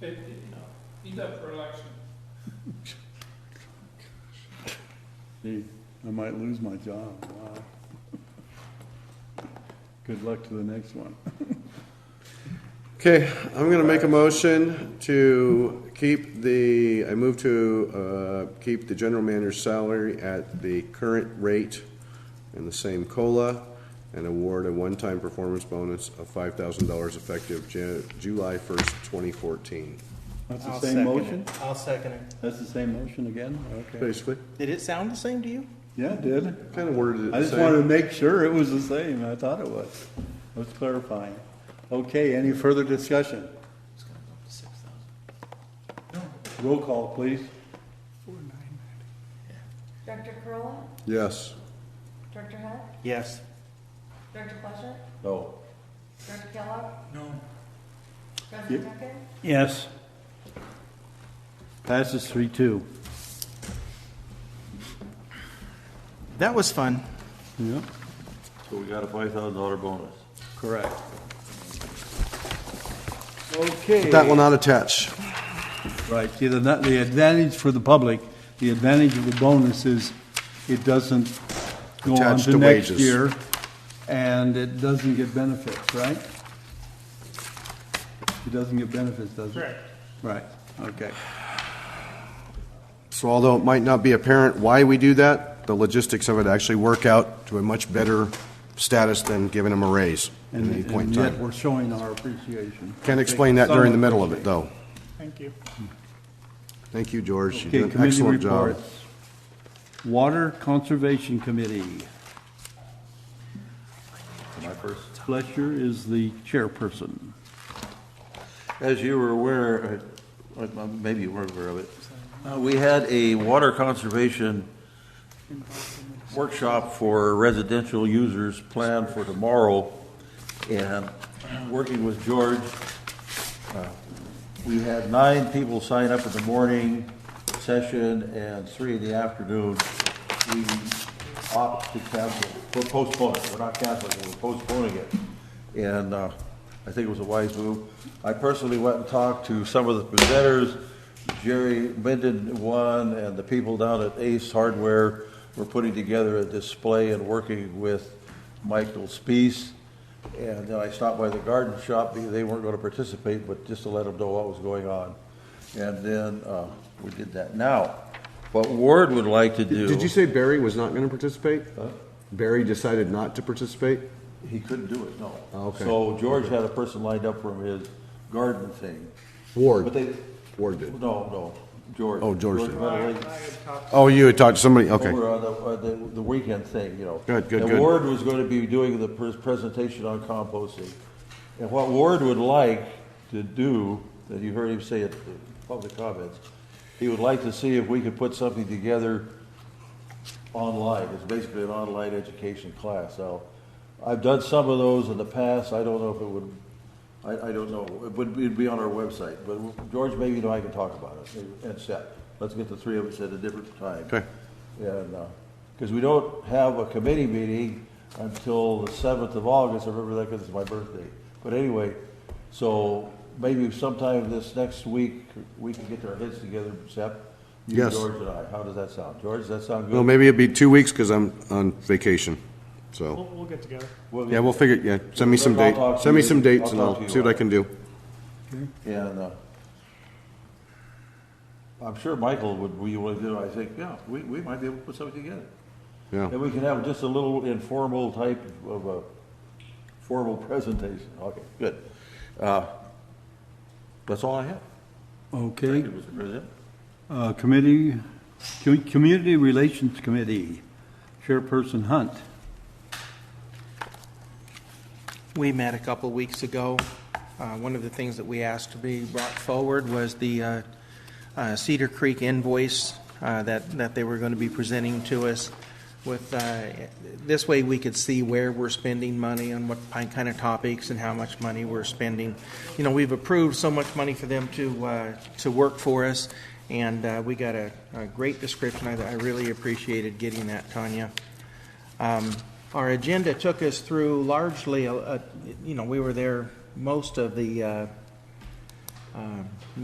Fifty, no, he's up for election. Gee, I might lose my job, wow. Good luck to the next one. Okay, I'm gonna make a motion to keep the, I move to, uh, keep the general manager's salary at the current rate and the same COLA, and award a one-time performance bonus of five thousand dollars effective Ju- July first, twenty fourteen. That's I'll the same second motion? it. I'll second it. That's the same motion again? Okay. Basically, Did it sound the same to you? Yeah, it did. kinda worded it I the just wanted to same. make sure it was the same. I thought it was. I was clarifying. Okay, any further discussion? Roll call, please. Director Corolla, Yes. Director Hunt, Yes. Director Fletcher, No. Director Kellogg, No. President Duncan, Yes. Passes three two. That was fun. Yep, So we got a five thousand dollar bonus. correct. Okay. That will not attach. Right, see, the, the advantage for the public, the advantage of the bonus is it doesn't go on Attached to to next wages. year, and it doesn't get benefits, right? It doesn't get benefits, does it? Correct. Right, okay. So although it might not be apparent why we do that, the logistics of it actually work out to a much better status than giving them a raise at And any point in and time. yet, we're showing our appreciation. Can't explain that during the middle of it, though. Thank you. Thank you, George. You Okay, did an committee excellent job. reports. Water Conservation Committee, My first. Fletcher is the chairperson. As you were aware, uh, uh, maybe you weren't aware of it, uh, we had a water conservation workshop for residential users planned for tomorrow. And uh, working with George, uh, we had nine people sign up in the morning session and three in the afternoon. We opt to cancel, we're postponing, we're not canceling, we're postponing it. And uh, I think it was a wise move. I personally went and talked to some of the presenters. Jerry Minden won, and the people down at Ace Hardware were putting together a display and working with Michael Spees. And then I stopped by the garden shop, because they weren't gonna participate, but just to let them know what was going on. And then, uh, we did that. Now, what Ward would like to do. Did you say Barry was not going to participate? Barry decided not to participate? He couldn't do it, no. Oh, okay. So George had a person lined up from his garden thing. But Ward? they, Ward no, did. no, George. Oh, George did. Madeline. Oh, you had talked to somebody, okay. over uh, on the, on the, the weekend thing, you know. Good, good, And good. Ward was going to be doing the pres- presentation on composting. And what Ward would like to do, that you heard him say at the public comments, he would like to see if we could put something together online. It's basically an online education class. Now, I've done some of those in the past. I don't know if it would, I, I don't know. It would, it'd be on our website. But George, maybe you know I can talk about it and Seth. Let's get the three of us at a different time. Okay. And, because we don't have a committee meeting until the seventh of August, I remember that because it's my birthday. But anyway, so maybe sometime this next week, we can get our heads together, Seth. you, Yes. George and I. How does that sound? George, does that sound good? Well, maybe it'd be two weeks because I'm on vacation, so. We'll get together. We'll get- Yeah, we'll figure, it- yeah, send me some I'll date, talk to send me you. some dates and I'll talk I'll to see you. what I can do. And uh, I'm sure Michael would, we would do, I think, yeah, we, we might be able to put something together. Yeah, And we can have just a little informal type of a formal presentation. Okay, good. Uh, That's all I have. Okay. Thank you, Mr. President. Uh, Committee, Com- Community Relations Committee, Chairperson Hunt. We met a couple of weeks ago. Uh, One of the things that we asked to be brought forward was the uh, uh, Cedar Creek invoice uh, that, that they were going to be presenting to us with, uh, this way we could see where we're spending money on what kind of topics and how much money we're spending. You know, we've approved so much money for them to, uh, to work for us, and uh, we got a a great description. I I really appreciated getting that, Tanya. Um, Our agenda took us through largely, uh, uh, you know, we were there most of the uh, um,